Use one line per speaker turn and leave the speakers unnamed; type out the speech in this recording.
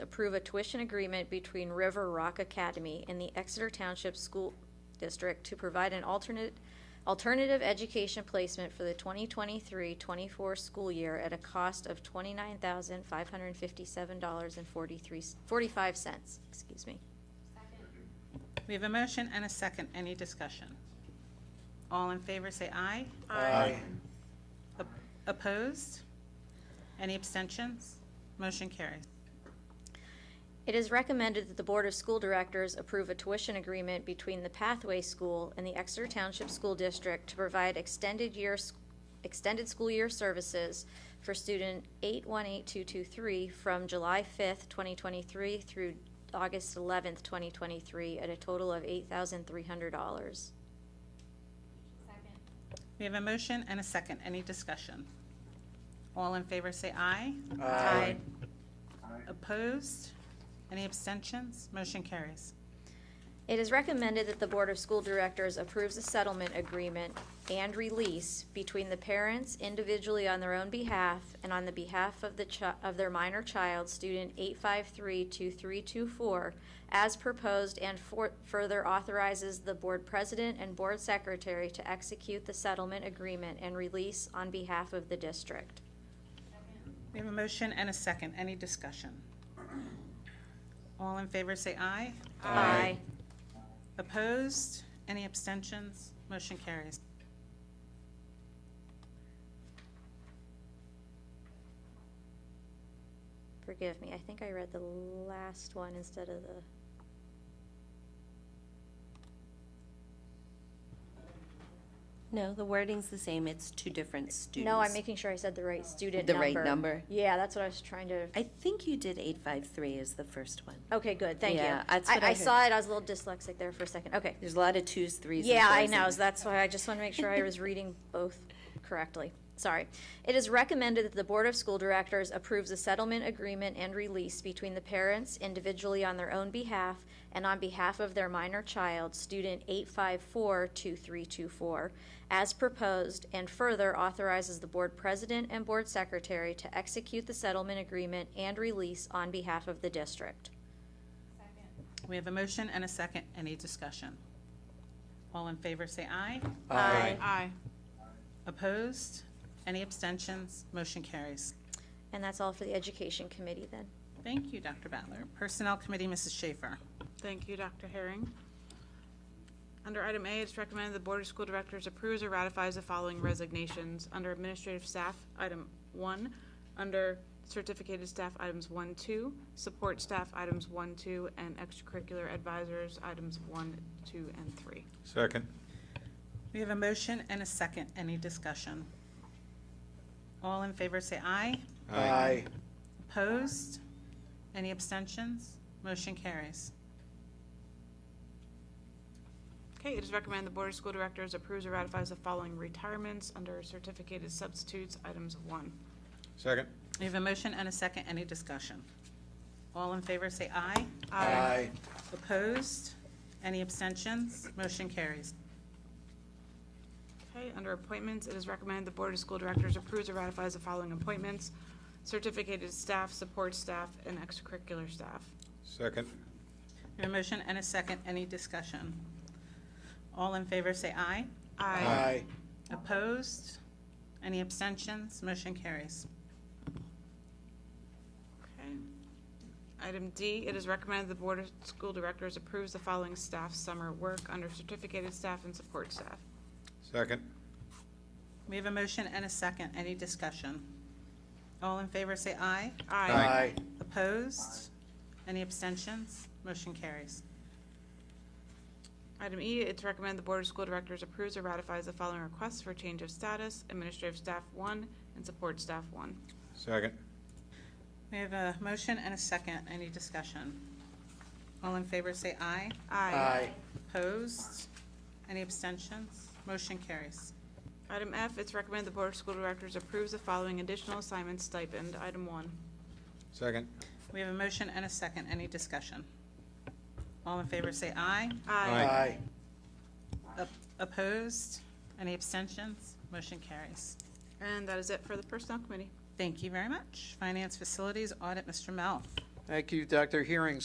approve a tuition agreement between River Rock Academy and the Exeter Township School District to provide an alternate, alternative education placement for the 2023-24 school year at a cost of $29,557.43, 45 cents, excuse me.
We have a motion and a second. Any discussion? All in favor, say aye.
Aye.
Op- Opposed? Any abstentions? Motion carries.
It is recommended that the Board of School Directors approve a tuition agreement between the Pathway School and the Exeter Township School District to provide extended year, extended school year services for student 818223 from July 5th, 2023 through August 11th, 2023, at a total of $8,300.
We have a motion and a second. Any discussion? All in favor, say aye.
Aye.
Opposed? Any abstentions? Motion carries.
It is recommended that the Board of School Directors approves a settlement agreement and release between the parents individually on their own behalf and on the behalf of the chi- of their minor child, student 8532324, as proposed and for- further authorizes the Board President and Board Secretary to execute the settlement agreement and release on behalf of the district.
We have a motion and a second. Any discussion? All in favor, say aye.
Aye.
Opposed? Any abstentions? Motion carries.
Forgive me, I think I read the last one instead of the.
No, the wording's the same, it's two different students.
No, I'm making sure I said the right student
The
number.
right number.
Yeah, that's what I was trying to,
I think you did eight five three is the first one.
okay, good, thank you.
Yeah, that's what I
saw it, I was a little dyslexic there for a second, okay.
There's a lot of twos, threes, and
Yeah, I
fours in
know,
there.
so that's why I just want to make sure I was reading both correctly. Sorry. It is recommended that the Board of School Directors approves a settlement agreement and release between the parents individually on their own behalf and on behalf of their minor child, student 8542324, as proposed, and further authorizes the Board President and Board Secretary to execute the settlement agreement and release on behalf of the district.
We have a motion and a second. Any discussion? All in favor, say aye.
Aye.
Opposed? Any abstentions? Motion carries.
And that's all for the Education Committee then.
Thank you, Dr. Butler. Personnel Committee, Mrs. Schaefer.
Thank you, Dr. Herring. Under item A, it's recommended the Board of School Directors approves or ratifies the following resignations. Under administrative staff, item one. Under certificated staff, items one, two. Support staff, items one, two, and extracurricular advisors, items one, two, and three.
Second.
We have a motion and a second. Any discussion? All in favor, say aye.
Aye.
Opposed? Any abstentions? Motion carries.
Okay, it is recommended the Board of School Directors approves or ratifies the following retirements. Under certificated substitutes, items one.
Second.
We have a motion and a second. Any discussion? All in favor, say aye. Opposed? Any abstentions? Motion carries.
Okay, under appointments, it is recommended the Board of School Directors approves or ratifies the following appointments. Certificated staff, support staff, and extracurricular staff.
Second.
We have a motion and a second. Any discussion? All in favor, say aye. Opposed? Any abstentions? Motion carries.
Okay. Item D, it is recommended the Board of School Directors approves the following staff summer work under certificated staff and support staff.
Second.
We have a motion and a second. Any discussion? All in favor, say aye.
Aye.
Opposed? Any abstentions? Motion carries.
Item E, it's recommended the Board of School Directors approves or ratifies the following requests for change of status, administrative staff one and support staff one.
Second.
We have a motion and a second. Any discussion? All in favor, say aye. Opposed? Any abstentions? Motion carries.
Item F, it's recommended the Board of School Directors approves the following additional assignment stipend. Item one.
Second.
We have a motion and a second. Any discussion? All in favor, say aye.
Aye.
Op- Opposed? Any abstentions? Motion carries.
And that is it for the Personnel Committee.
Thank you very much. Finance Facilities Audit, Mr. Mel.
Thank you, Dr. Hearing.